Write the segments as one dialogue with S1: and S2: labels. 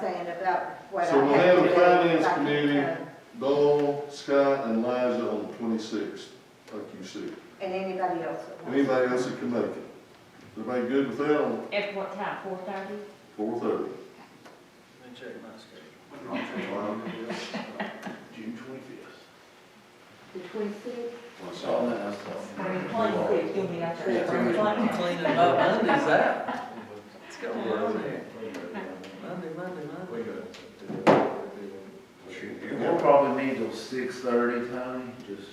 S1: saying about what I
S2: So we'll
S1: have
S2: have
S1: to
S2: a
S1: do.
S2: finance
S1: if I can,
S2: committee.
S1: uh,
S2: Doyle, Scott, and Liza on the twenty-sixth, like you said.
S1: And anybody else. that wants.
S2: Anybody else that can make it? Everybody good with that on
S3: At what time, four thirty?
S2: four thirty?
S4: Let me check my schedule.
S5: June twenty-fifth.
S1: The twenty-sixth,
S3: Twenty-six, you'll be out there.
S4: Cleaning up Mondays out. What's going on there? Monday, Monday, Monday.
S5: We'll probably need till six thirty, Tony, just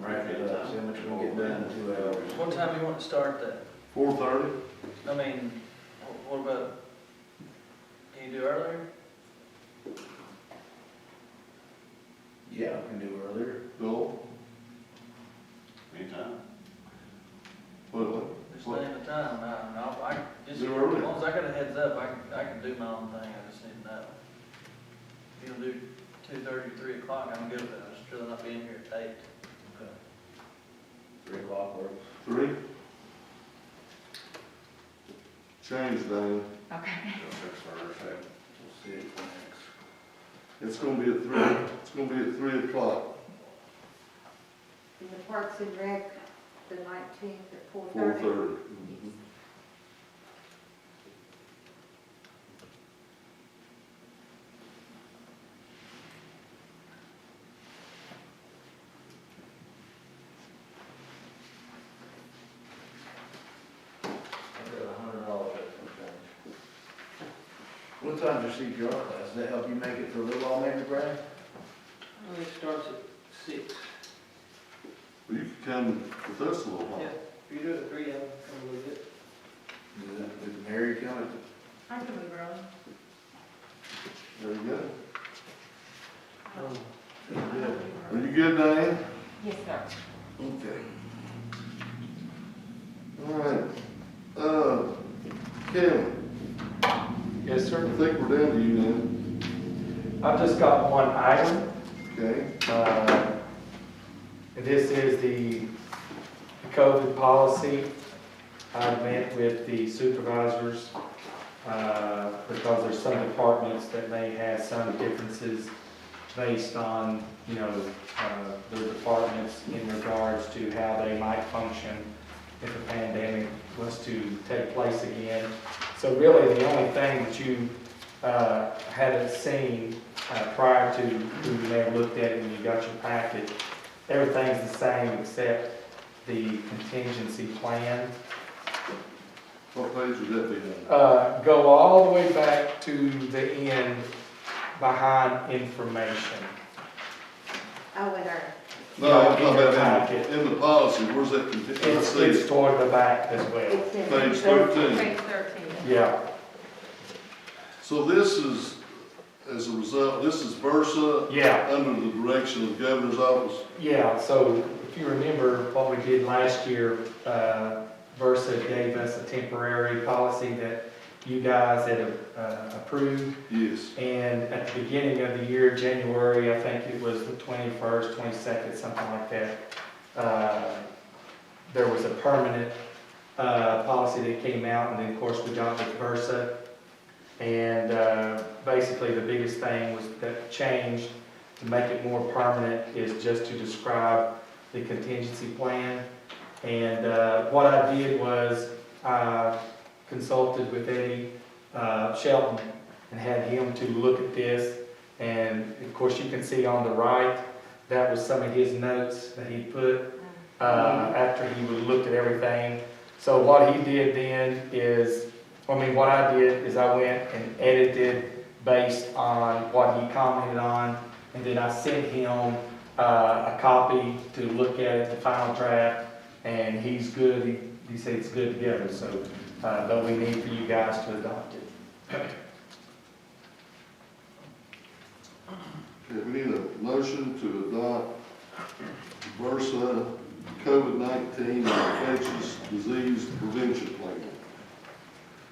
S5: wrap it up, see how much we can get done in two hours.
S4: What time you want to start that?
S2: Four thirty?
S4: I mean, wh- what about, can you do earlier?
S5: Yeah, we can do earlier.
S2: Doyle,
S6: Anytime.
S2: what,
S4: Just name the time, I, don't know. I, just, as
S2: Do earlier.
S4: long as I got a heads up, I can, I can do my own thing, I just need to know. If you'll do two thirty, three o'clock, I'm good with it, I'm just really not being here at eight.
S5: Three o'clock works.
S2: three? Change, Dana.
S3: Okay.
S5: We'll see it next.
S2: It's gonna be at three, it's gonna be at three o'clock,
S1: in the Parks and Rec, the nineteenth at four
S2: four
S1: thirty.
S2: thirty.
S3: Mm-hmm.
S5: I've got a hundred dollars worth of change. What time's your CPR class? Does that help you make it for a little while, maybe, Brad?
S4: Well, it starts at six.
S2: Well, you can come with us a little while.
S4: Yeah, if you do it at three, I'm gonna lose it.
S5: Did that- Did Mary come at the
S3: I can move early.
S2: There you go.
S5: Good.
S2: Are you good, Diane?
S3: Yes, sir.
S2: Okay. All right, uh, Kevin,
S7: Yes,
S2: I
S7: sir.
S2: think we're down to you now,
S7: I've just got one item.
S2: okay?
S7: uh, and This is the COVID policy. I met with the supervisors uh, because there's some departments that may have some differences based on, you know, uh, their departments in regards to how they might function if a pandemic was to take place again. So really, the only thing that you uh, hadn't seen uh, prior to, who you may have looked at it when you got your packet, everything's the same except the contingency plan.
S2: What page would that be on?
S7: Uh, Go all the way back to the end behind information.
S1: Oh, in our,
S2: No, I'm
S7: Yeah,
S2: talking
S7: in
S2: about Uh,
S7: your
S2: in
S7: packet.
S2: the, in the policy, where's that contingent? I
S7: It's,
S2: see
S7: it's
S2: it.
S7: toward the back as well.
S1: it's in.
S2: Page thirteen.
S3: Page thirteen.
S7: Yeah,
S2: So this is, as a result, this is Versa
S7: yeah.
S2: under the direction of the governor's office.
S7: Yeah, so if you remember what we did last year, uh, Versa gave us a temporary policy that you guys had uh, approved.
S2: Yes,
S7: And at the beginning of the year, January, I think it was the 21st, 22nd, something like that, uh, there was a permanent uh, policy that came out, and then, of course, we got with Versa. And uh, basically, the biggest thing was that changed to make it more permanent is just to describe the contingency plan. And uh, what I did was I consulted with Eddie uh, Shelton and had him to look at this. And of course, you can see on the right, that was some of his notes that he put uh, after he would looked at everything. So what he did then is, I mean, what I did is I went and edited based on what he commented on, and then I sent him uh, a copy to look at it, the final draft, and he's good, he, he said it's good together, so, uh, but we need for you guys to adopt it.
S2: okay, we need a motion to adopt Versa COVID-19 infectious disease prevention plan.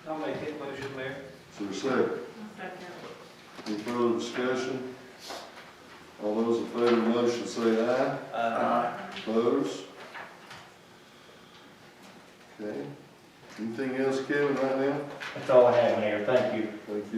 S4: I'll make it, motion, Mayor.
S2: So second? Any further discussion? All those in favor of the motion say aye.
S4: Uh,
S2: Opposed? Okay. Anything else, Kevin, right now?
S8: That's all I have, Mayor, thank you.
S7: Thank you.